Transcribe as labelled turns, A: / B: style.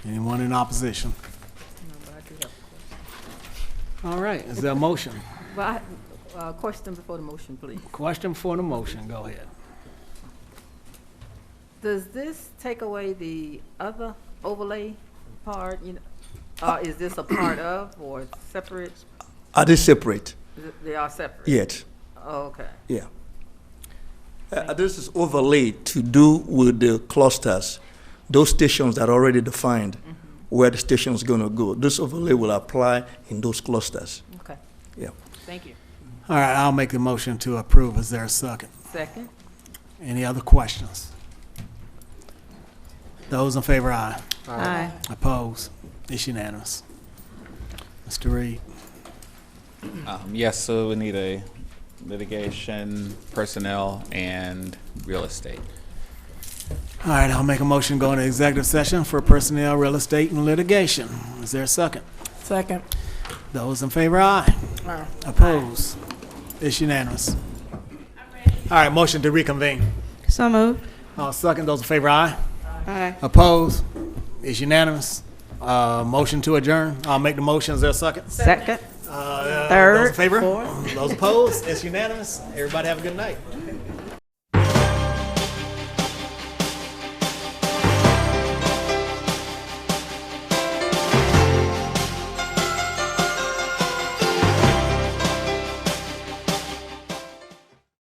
A: in opposition. All right, is there a motion?
B: Well, I- uh, question before the motion, please.
A: Question for the motion, go ahead.
B: Does this take away the other overlay part, you know? Uh, is this a part of or separate?
C: Are they separate?
B: Is it- They are separate? Oh,
C: Yet,
B: Okay,
C: yeah. Uh, This is overlaid to do with the clusters, those stations that are already defined, where the station's gonna go. This overlay will apply in those clusters.
B: okay.
C: Yeah.
B: Thank you.
A: All right, I'll make the motion to approve. Is there a second?
B: Second?
A: Any other questions? Those in favor, aye.
B: Aye.
A: Opposed? It's unanimous. Mr. Reed,
D: Um, yes, so we need a litigation, personnel, and real estate.
A: all right, I'll make a motion going to executive session for personnel, real estate, and litigation. Is there a second?
E: Second.
A: Those in favor, aye. Opposed? It's unanimous. All right, motion to reconvene.
E: So moved.
A: I'll Uh, second. Those in favor, aye.
E: Aye.
A: Opposed? It's unanimous. Uh, motion to adjourn. I'll make the motion. Is there a second?
E: Second.
A: Uh,
E: Third,
A: Those in favor?
E: fourth.
A: Those opposed? It's unanimous. Everybody have a good night.